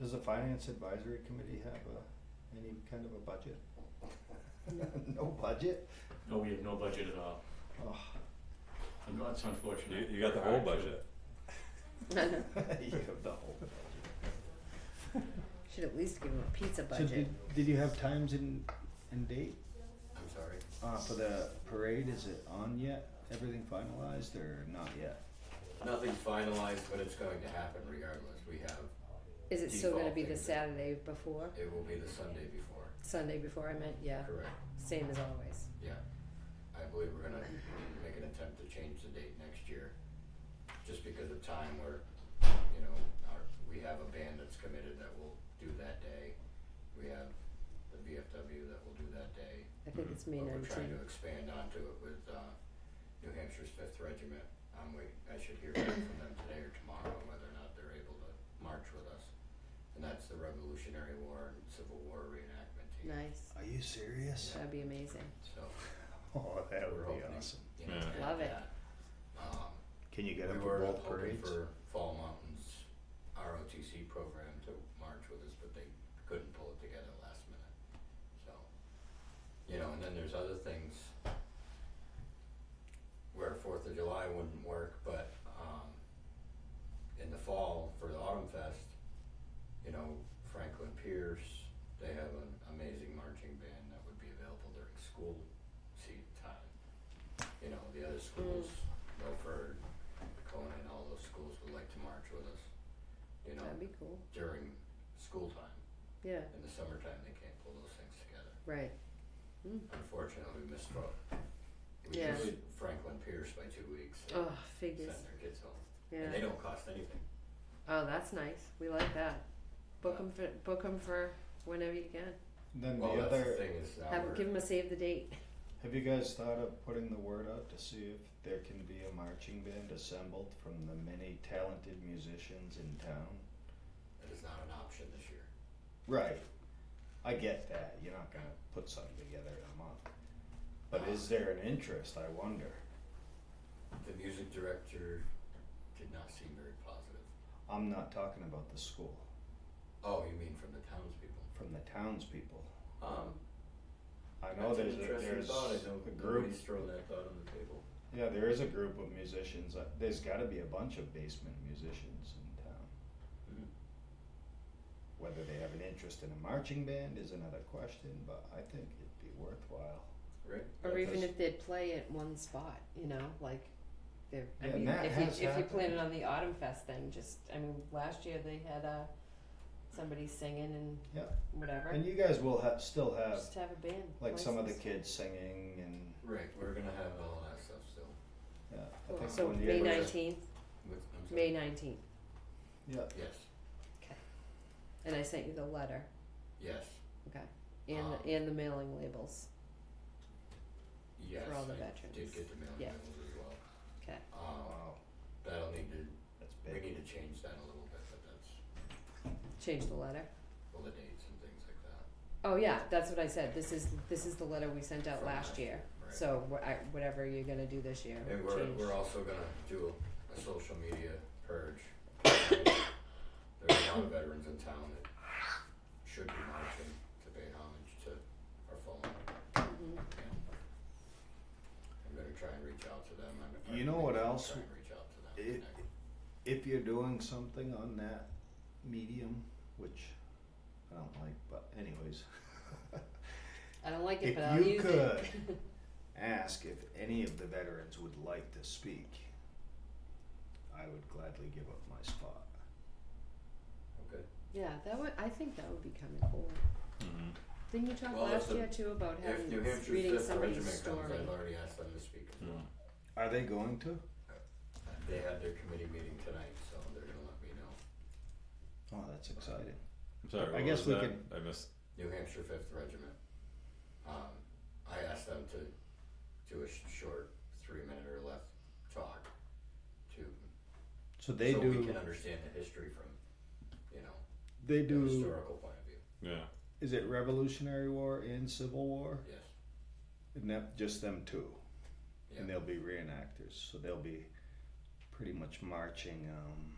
Does the finance advisory committee have a, any kind of a budget? No budget? No, we have no budget at all. Oh, Un- That's You, unfortunate. you got the whole budget. you have the whole budget. Should at least give him a pizza budget. So did, did you have times and, and date, I'm sorry. uh, for the parade, is it on yet? Everything finalized or not yet? Nothing's finalized, but it's going to happen regardless. We have, Is it still gonna be the Default. Saturday before? it will be the Sunday before, Sunday before I meant, yeah, correct? same as always. Yeah. I believe we're gonna make an attempt to change the date next year, just because of time where, you know, our, we have a band that's committed that will do that day. We have the VFW that will do that day. I think it's May But we're trying to nineteenth. expand onto it with uh New Hampshire's Fifth Regiment. I'm wait, I should hear back from them today or tomorrow on whether or not they're able to march with us. And that's the Revolutionary War and Civil War reenactment team. Nice, Are you serious? that'd be amazing. So Oh, that We're would be hoping. awesome. you know, Yeah. we Love have it. that. Um, Can you get we up for were both hoping parades? for Fall Mountains ROTC program to march with us, but they couldn't pull it together last minute. So, you know, and then there's other things where Fourth of July wouldn't work, but um in the fall for the Autumn Fest, you know, Franklin Pierce, they have an amazing marching band that would be available during school seat time. You know, the other schools, Milford, Conan, all those schools would like to march with us, you know, That'd be cool, during school time. yeah, In the summertime, they can't pull those things together. right. Unfortunately, we missed both. We Yeah. missed Franklin Pierce by two weeks. They Oh, figures, Sent their kids home. And they yeah. don't cost anything. Oh, that's nice, we like that. Book 'em for, book 'em for whenever you can. Then the Well, that's the other, thing is now Have, we're- give him a save the date. have you guys thought of putting the word out to see if there can be a marching band assembled from the many talented musicians in town? It is not an option this year. Right. I get that. You're not gonna put something together in a month. But is there an interest, I wonder? The music director did not seem very positive. I'm not talking about the school, Oh, you mean from the townspeople? from the townspeople. Um, I know that's there's an a, interesting there's thought. I know a group, Nobody's thrown that thought on the table. yeah, there is a group of musicians, uh, there's gotta be a bunch of basement musicians in town. Mhm. Whether they have an interest in a marching band is another question, but I think it'd be worthwhile. Right? Or Yeah, even that's- if they'd play at one spot, you know, like they're, I Yeah, and mean, that if you, has if you happened. plan it on the Autumn Fest thing, just, I mean, last year they had, uh, somebody singing and Yeah. whatever, And you guys will have, still have, just have a band. like, some of the license. kids singing and, Right, we're gonna have all that stuff still. yeah, I Cool. think So one May year, night- nineteenth, With, I'm sorry. May nineteenth, yeah, Yes, and I sent you the letter yes, okay. and, Ah. and the mailing labels, yes. all the I did veterans. get the mailing Yeah. labels as well. okay, Um, wow, that'll need to, that's we big. need to change that a little bit, but that's, change the letter. all the dates and things like that. Oh, yeah, that's what I said, this is, this is the letter we sent out From last last year, right. so wh- I, whatever you're gonna do this year, And we're, change. we're also gonna do a, a social media purge. There's a lot of veterans in town that should be marching to pay homage to our fallen. and Mhm. I'm gonna try and reach out to them. I'm- I'm You know what gonna else? Try and reach out to them. If, connect. if you're doing something on that medium, which I don't like, but anyways, I don't like it, If but I'll you use it. ask if any of the veterans would like to speak. I would gladly give up my spot. Okay. yeah, that would. I think that would be kind of cool. Mhm. Didn't you talk Well, if last the- year too about If having New s- Hampshire's reading Fifth somebody's Regiment story? comes, I've already asked them to speak as well. Are they going to? They had their committee meeting tonight, so they're gonna let me know. Oh, that's exciting. I'm sorry, I what guess was we that? could- I missed. New Hampshire Fifth Regiment. Um, I asked them to do a sh- short three minute or less talk to So they so we do. can understand the history from you know They the do. historical point of view. Yeah. Is it Revolutionary War and Civil War? Yes. And that, just them two, Yeah. and they'll be reenactors. So they'll be pretty much marching. Um,